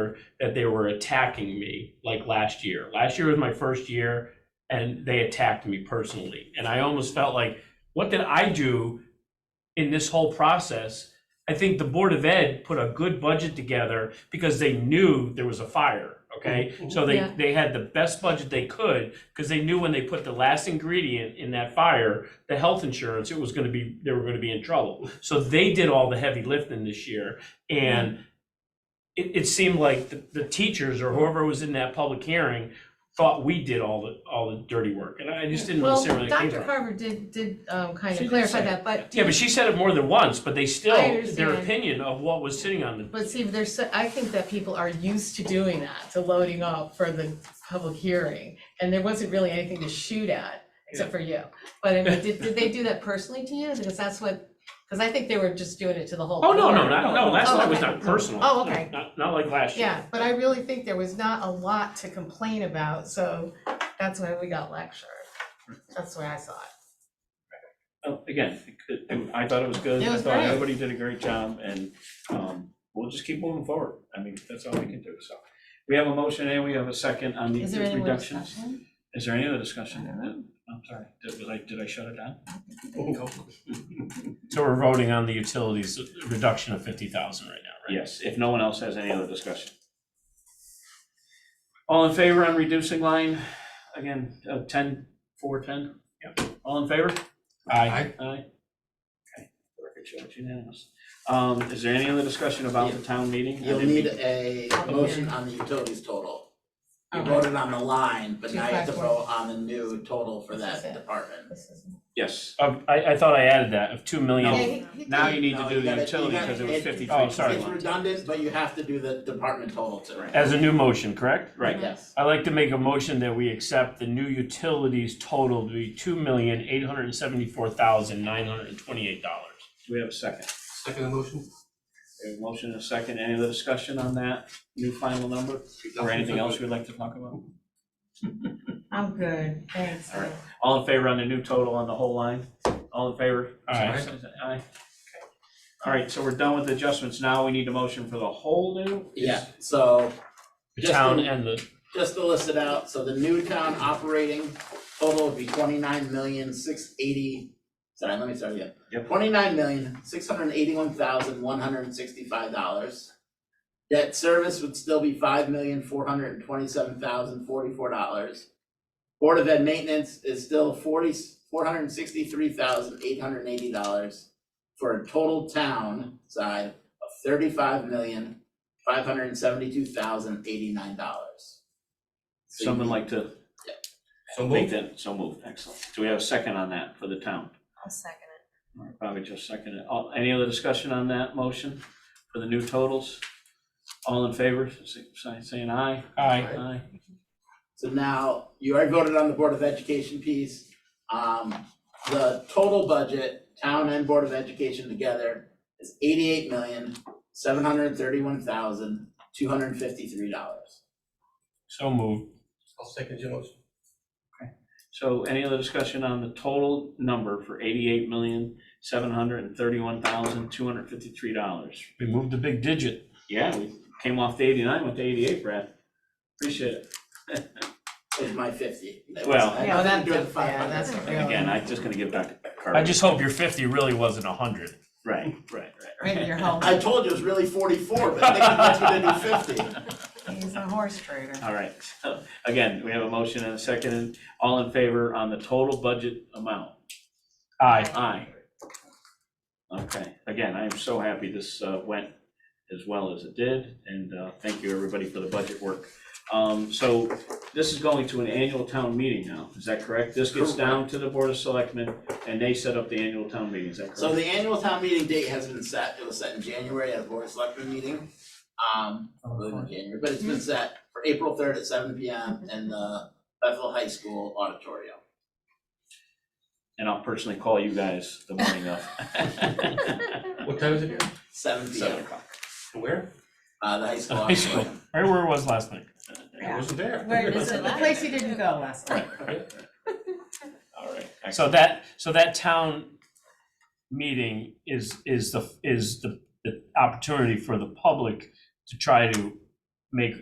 year that they were attacking me like last year. Last year was my first year and they attacked me personally. And I almost felt like, what did I do in this whole process? I think the Board of Ed put a good budget together because they knew there was a fire, okay? So they, Yeah. they had the best budget they could because they knew when they put the last ingredient in that fire, the health insurance, it was gonna be, they were gonna be in trouble. So they did all the heavy lifting this year and it, it seemed like the, the teachers or whoever was in that public hearing thought we did all the, all the dirty work and I just didn't Well, necessarily came Dr. from. Carver did, did um, kind She did of clarify say that, but, Yeah, but she said it more than once, but they still, their understand. opinion of what was sitting on the but see, there's, so- I think that people are used to doing that, to loading up for the public hearing. And there wasn't really anything to shoot at, except for you. But I mean, did, did they do that personally to you? Because that's what, because I think they were just doing it to the whole. Oh, no, no, board. not, no, last Oh, night was okay. not personal. Oh, okay. Not, not like last year. Yeah, but I really think there was not a lot to complain about, so that's why we got lectured. That's the way I saw it. Oh, Again, it could- it- I thought it was good, It I was thought great. everybody did a great job, and um, we'll just keep moving forward. I mean, that's all we can do, so. We have a motion and we have a second on the Is there any more reductions. discussion? Is there any other discussion? I'm sorry, did was I, did I shut it down? So we're voting on the utilities reduction of fifty thousand right now, right? Yes, if no one else has any other discussion. All in favor on reducing line, again, uh, ten, four, ten? Yep. All in favor? Aye. Aye. Okay, record shows unanimous. Um, is there any other discussion about the town meeting? I You'll didn't- need a motion on the utilities total. You Okay. voted on the line, but now you have to Two five four. vote on the new total for This is that it. department. This is- Yes, Um, I, I thought I added that of two Yeah, million. he- he now did. you need to No, do you the gotta- utility, you gotta- because it was it- fifty-three. Oh, sorry. It's redundant, but you have to do the department total too. Right. As a new motion, correct? Right, Yes. I'd like to make a motion that we accept the new utilities total to be two million, eight hundred and seventy-four thousand, nine hundred and twenty-eight dollars. do we have a second? Second motion? We have a motion and a second, any other discussion on that new final number, or anything else we'd like to talk about? I'm good, thanks. All right. All in favor on the new total on the whole line? All in favor? Aye. Aye. Okay. All right, so we're done with adjustments, now we need a motion for the whole new? Yeah, so The Just town the- and the, just to list it out, so the new town operating total would be twenty-nine million, six eighty, sorry, let me start again. Yep. Twenty-nine million, six hundred eighty-one thousand, one hundred and sixty-five dollars. Debt service would still be five million, four hundred and twenty-seven thousand, forty-four dollars. Board of Ed maintenance is still forty, four hundred and sixty-three thousand, eight hundred and eighty dollars for a total town side of thirty-five million, five hundred and seventy-two thousand, eighty-nine dollars. Someone like to So make moved. that, so move, excellent. Do we have a second on that for the town? I'll second it. All right, Bobby just seconded. All- Any other discussion on that motion for the new totals? All in favor, say- say- saying aye? aye, Aye. So now, you already voted on the Board of Education piece. Um, the total budget, town and Board of Education together is eighty-eight million, seven hundred thirty-one thousand, two hundred fifty-three dollars. so moved. I'll second your motion. So any other discussion on the total number for eighty-eight million, seven hundred and thirty-one thousand, two hundred and fifty-three dollars? We moved a big digit. Yeah, we came off the eighty-nine, went to eighty-eight, Brad. Appreciate it. Is my fifty. That was- Well- I Yeah, didn't do that's- the five yeah, hundred. that's And Again, I'm just gonna give Dr. Carver. I just hope your fifty really wasn't a hundred. Right, right, right. Right, you're home, I told you it was really forty-four, but they convinced me to do fifty. he's a horse trader. All right, so again, we have a motion and a second. All in favor on the total budget amount? Aye. Aye. Okay, again, I am so happy this uh, went as well as it did, and uh, thank you, everybody, for the budget work. Um, So this is going to an annual town meeting now, is that correct? This gets down to the Board of Selectmen, and they set up the annual town meeting, is that So correct? the annual town meeting date has been set, it was set in January at a board of selectmen meeting. Um, probably in January, but it's been set for April third at seven P M in the Bethel High School auditorium. And I'll personally call you guys the morning of. What time is it again? Seven P Seven M, o'clock. Where? uh, the high school The high school. auditorium. Right where it was last night. I wasn't there. The place you didn't go last night. All right. So that, so that town meeting is, is the, is the, the opportunity for the public to try to make